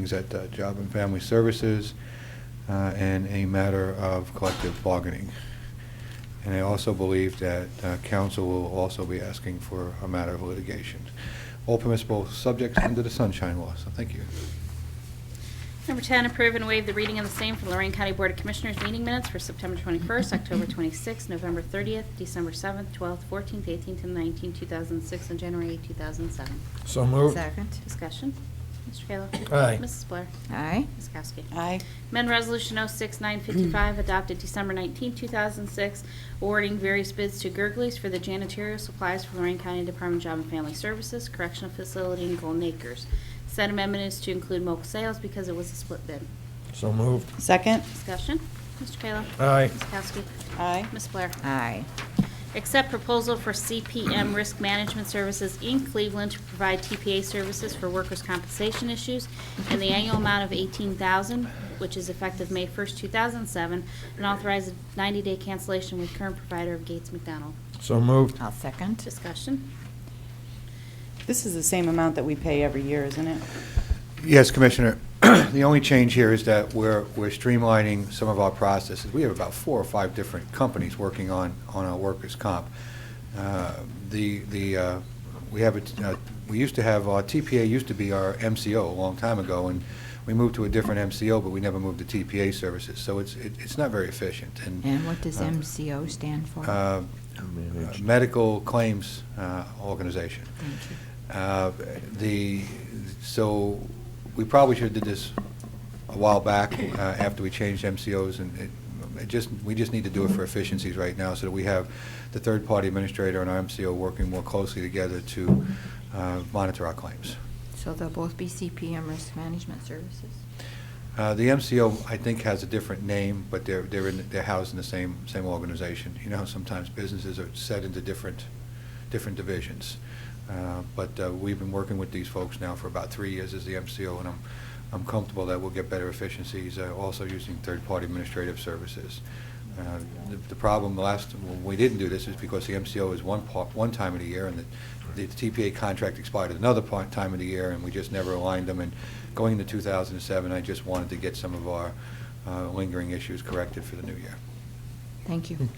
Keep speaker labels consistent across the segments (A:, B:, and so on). A: meetings at uh, Job and Family Services uh, and a matter of collective bargaining. And I also believe that uh, council will also be asking for a matter of litigation. All permissible subjects under the sunshine law, so thank you.
B: Number 10, approve and waive the reading of the same for Lorraine County Board of Commissioners meeting minutes for September 21st, October 26th, November 30th, December 7th, 12th, 14th, 18th, and 19th, 2006, and January 8th, 2007.
C: So moved.
D: Second.
B: Discussion. Mr. Kayla.
C: Aye.
B: Mrs. Blair.
D: Aye.
B: Ms. Kowski.
E: aye,
B: Amendment Resolution 06955, adopted December 19, 2006, awarding various bids to Gerglies for the janitorial supplies for Lorraine County Department of Job and Family Services Correctional Facility in Golden Acres. Said amendment is to include mobile sales because it was a split bid.
C: So moved.
E: second,
B: Discussion. Mr. Kayla.
C: Aye.
B: Ms. Kowski.
E: aye,
B: Ms. Blair.
D: Aye.
B: Accept proposal for CPM Risk Management Services in Cleveland to provide TPA services for workers' compensation issues in the annual amount of $18,000, which is effective May 1st, 2007, and authorize a 90-day cancellation with current provider of Gates McDonald.
C: So
E: Oh.
C: moved.
D: I'll second.
B: Discussion.
E: this is the same amount that we pay every year, isn't it?
A: Yes, Commissioner, the only change here is that we're we're streamlining some of our processes. We have about four or five different companies working on on our workers' comp. Uh, The, the uh, we have, a t- uh, we used to have, our TPA used to be our MCO a long time ago, and we moved to a different MCO, but we never moved to TPA services, so it's it- it's not very efficient. And
D: And what does
A: Uh,
D: MCO stand for?
A: uh,
C: Managed.
A: Medical Claims uh, Organization.
D: Thank you.
A: Uh, The, so, we probably should have did this a while back, uh, after we changed MCOs, and it- it just, we just need to do it for efficiencies right now, so that we have the third-party administrator and our MCO working more closely together to uh, monitor our claims.
D: So they'll both be CPM Risk Management Services?
A: Uh, The MCO, I think, has a different name, but they're, they're in, they're housed in the same, same organization. You know, how sometimes businesses are set into different, different divisions. Uh, But uh, we've been working with these folks now for about three years as the MCO, and I'm, I'm comfortable that we'll get better efficiencies, uh, also using third-party administrative services. Uh, the- The problem last, when we didn't do this is because the MCO is one part, one time of the year, and the the TPA contract expired at another point, time of the year, and we just never aligned them. And going into 2007, I just wanted to get some of our uh, lingering issues corrected for the new year.
D: Thank
A: Hmm.
D: you.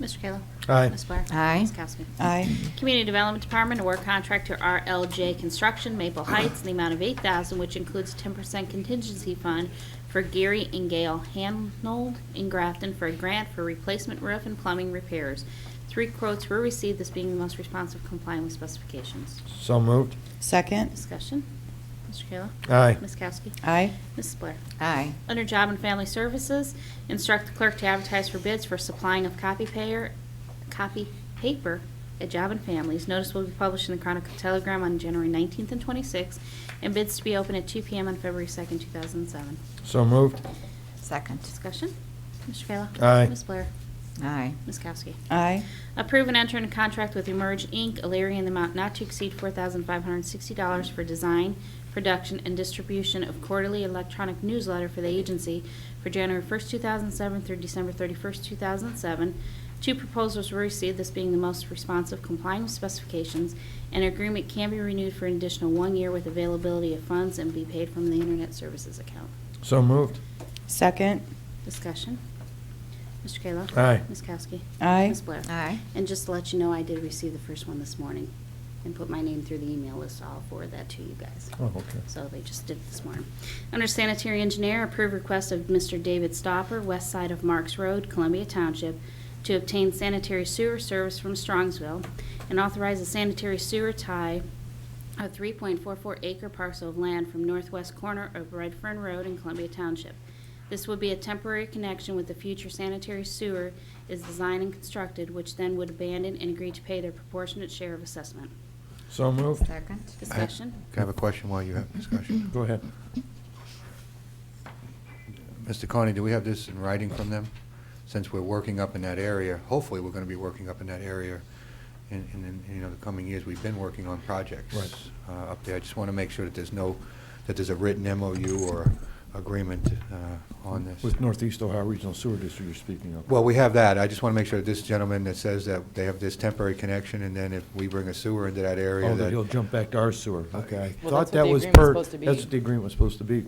B: Mr. Kayla.
C: Aye.
B: Ms. Blair.
D: Aye.
B: Ms. Kowski.
E: Aye,
B: Community Development Department award contract to RLJ Construction Maple Heights in the amount of $8,000, which includes 10% contingency fund for Gary and Gail Hanold in Grafton for a grant for replacement roof and plumbing repairs. Three quotes were received, this being the most responsive complying with specifications.
C: So moved.
E: second,
B: Discussion. Mr. Kayla.
C: Aye.
B: Ms. Kowski.
E: aye,
B: Mrs. Blair.
D: Aye.
B: Under Job and Family Services, instruct the clerk to advertise for bids for supplying of copy payer, copy paper at Job and Families. Notice will be published in the Chronicle Telegram on January 19th and 26th, and bids to be open at 2 PM on February 2nd, 2007.
C: So moved.
D: Second.
B: Discussion? Mr. Kayla?
C: Aye.
B: Ms. Blair?
D: Aye.
B: Ms. Kowski?
E: aye,
B: Approve and enter into contract with Emerge Inc., Alaria, in the amount not to exceed $4,560 for design, production, and distribution of quarterly electronic newsletter for the agency for January 1st, 2007 through December 31st, 2007. Two proposals were received, this being the most responsive complying with specifications. An agreement can be renewed for an additional one year with availability of funds and be paid from the Internet Services account.
C: So moved.
E: second,
B: Discussion. Mr. Kayla?
C: Aye.
B: Ms. Kowski?
E: Aye.
B: Ms. Blair?
D: Aye.
B: And just to let you know, I did receive the first one this morning and put my name through the email list. I'll forward that to you guys.
C: Oh, okay.
B: So they just did it this morning. Under sanitary engineer, approve request of Mr. David Stopper, west side of Marks Road, Columbia Township, to obtain sanitary sewer service from Strongsville and authorize a sanitary sewer tie a 3.44 acre parcel of land from northwest corner of Red Fern Road in Columbia Township. This would be a temporary connection with the future sanitary sewer is designed and constructed, which then would abandon and agree to pay their proportionate share of assessment.
C: So moved.
D: Second.
B: Discussion?
A: Can I have a question while you have discussion?
C: Go ahead.
A: Mr. Carney, do we have this in writing from them? Since we're working up in that area, hopefully, we're going to be working up in that area in, in, in, you know, the coming years. We've been working on projects
C: Right.
A: uh, up there. I just want to make sure that there's no, that there's a written MOU or agreement uh, on this.
C: With Northeast Ohio Regional Sewer District you're speaking of.
A: Well, we have that. I just want to make sure that this gentleman that says that they have this temporary connection, and then if we bring a sewer into that area,
C: Oh,
A: that...
C: that he'll jump back to our sewer. Okay. I
E: Well, that's
C: thought
E: what
C: that
E: the
C: was
E: agreement's
C: per-
E: supposed to be.
C: That's what the agreement was supposed to be.